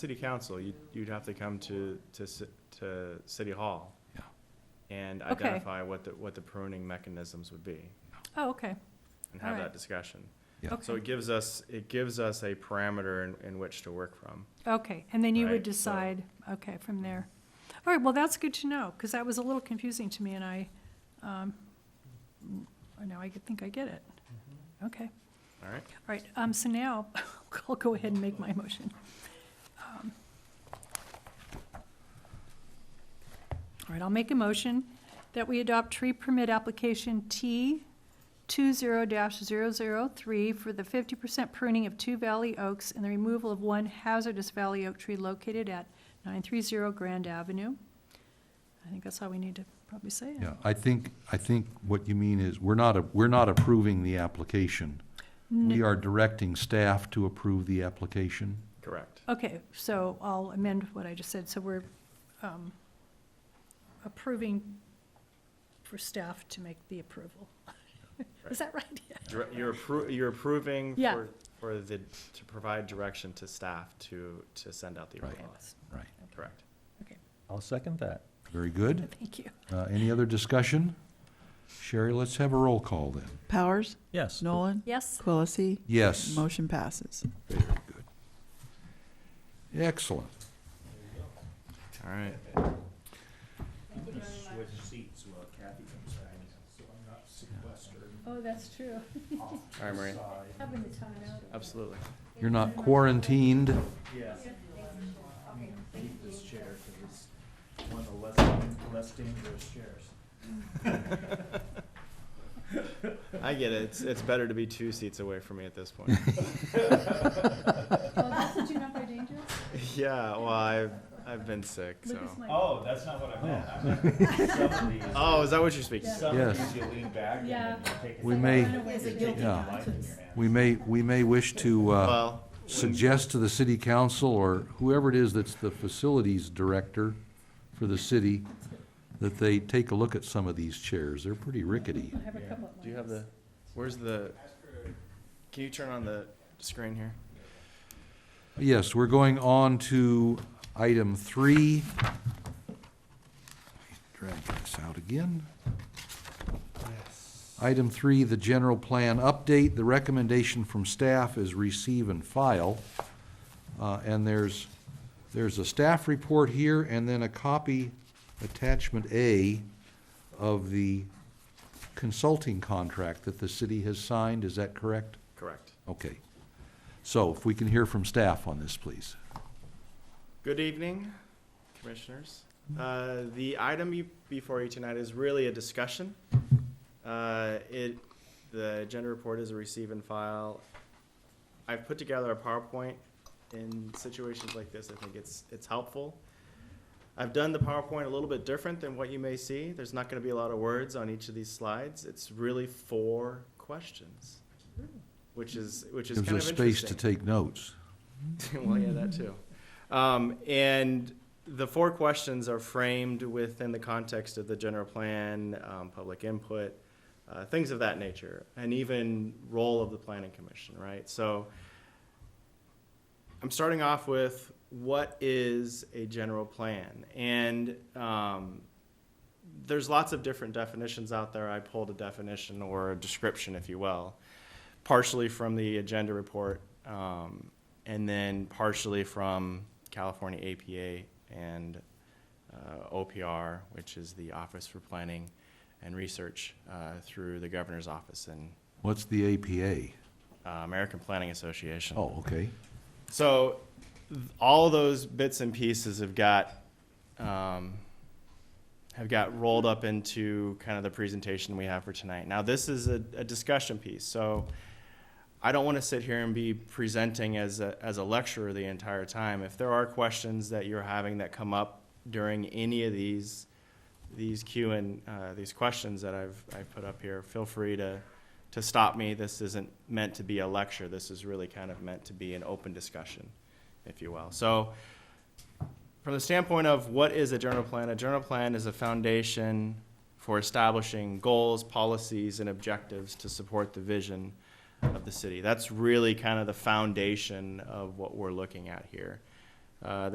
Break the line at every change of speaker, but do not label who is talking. city council, you'd, you'd have to come to, to, ci- to city hall.
Yeah.
And
Okay.
identify what the, what the pruning mechanisms would be
Oh, okay,
and have that
Alright.
discussion.
Yeah.
So
okay,
it gives us, it gives us a parameter in, in which to work from.
okay. And then you would
Right, so-
decide, okay, from there. All right, well, that's good to know, because that was a little confusing to me, and I, um, now I think I get it.
Mm-hmm.
Okay.
All right?
All right, um, so now, I'll go ahead and make my motion. Um, All right, I'll make a motion that we adopt tree permit application T two zero dash zero zero three for the fifty percent pruning of two valley oaks and the removal of one hazardous valley oak tree located at nine three zero Grand Avenue. I think that's all we need to probably say.
Yeah, I think, I think what you mean is, we're not, a- we're not approving the application. We are directing staff to approve the application.
Correct.
Okay, so I'll amend what I just said. So we're um, approving for staff to make the approval. Is that right? Yeah.
Dir- You're appro, you're approving
Yeah.
for, for the, to provide direction to staff to, to send out the
Right.
bylaws.
Right.
Correct.
I'll second that.
Very good.
Thank you.
Uh, Any other discussion? Sherry, let's have a roll call then.
Powers?
Yes.
Nolan?
Yes,
Quillisi?
Yes.
Motion passes.
Excellent.
All right.
oh, that's true.
All right, Maria.
Having the time out.
Absolutely.
You're not quarantined.
this chair because it's one of the less, less dangerous chairs.
I get it. It's, it's better to be two seats away from me at this point.
Well, did you not by danger?
Yeah, well, I've, I've been sick, so.
Lucas might-
Oh, that's not what I meant. I meant. Some of these,
Oh, is that what you're speaking to?
some of
Yes.
these you lean back and
Yeah.
then you take a
We
sip.
may,
It's a
guilty
Yeah.
life in your hand.
we may, we may wish to uh,
Well,
suggest to the city council or whoever it is that's the facilities director for the city that they take a look at some of these chairs. They're pretty rickety.
I have a couple of
do you
mine.
have the, where's the, can you turn on the screen here?
Yes, we're going on to item three. Drag this out again. Item three, the general plan update. The recommendation from staff is receive and file. Uh, and there's, there's a staff report here and then a copy, attachment A, of the consulting contract that the city has signed. Is that correct?
Correct.
Okay. So if we can hear from staff on this, please.
Good evening, Commissioners. Uh, The item you- before you tonight is really a discussion. Uh, It, the agenda report is a receive and file. I've put together a PowerPoint. In situations like this, I think it's, it's helpful. I've done the PowerPoint a little bit different than what you may see. There's not going to be a lot of words on each of these slides. It's really four questions, which is, which is
Hmm. Gives
kind
us
of
space to
interesting.
take notes.
well, yeah, that too. Um, and the four questions are framed within the context of the general plan, um, public input, uh, things of that nature, and even role of the planning commission, right? So I'm starting off with what is a general plan? And um, there's lots of different definitions out there. I pulled a definition or a description, if you will, partially from the agenda report, um, and then partially from California APA and uh, OPR, which is the Office for Planning and Research uh, through the Governor's Office and
What's the APA?
uh, American Planning Association.
Oh, okay.
So th- all those bits and pieces have got um, have got rolled up into kind of the presentation we have for tonight. Now this is a, a discussion piece, so I don't want to sit here and be presenting as a, as a lecturer the entire time. If there are questions that you're having that come up during any of these these Q and uh, these questions that I've I put up here, feel free to to stop me. This isn't meant to be a lecture. This is really kind of meant to be an open discussion, if you will. So, from the standpoint of what is a general plan, a general plan is a foundation for establishing goals, policies, and objectives to support the vision of the city. That's really kind of the foundation of what we're looking at here. Uh,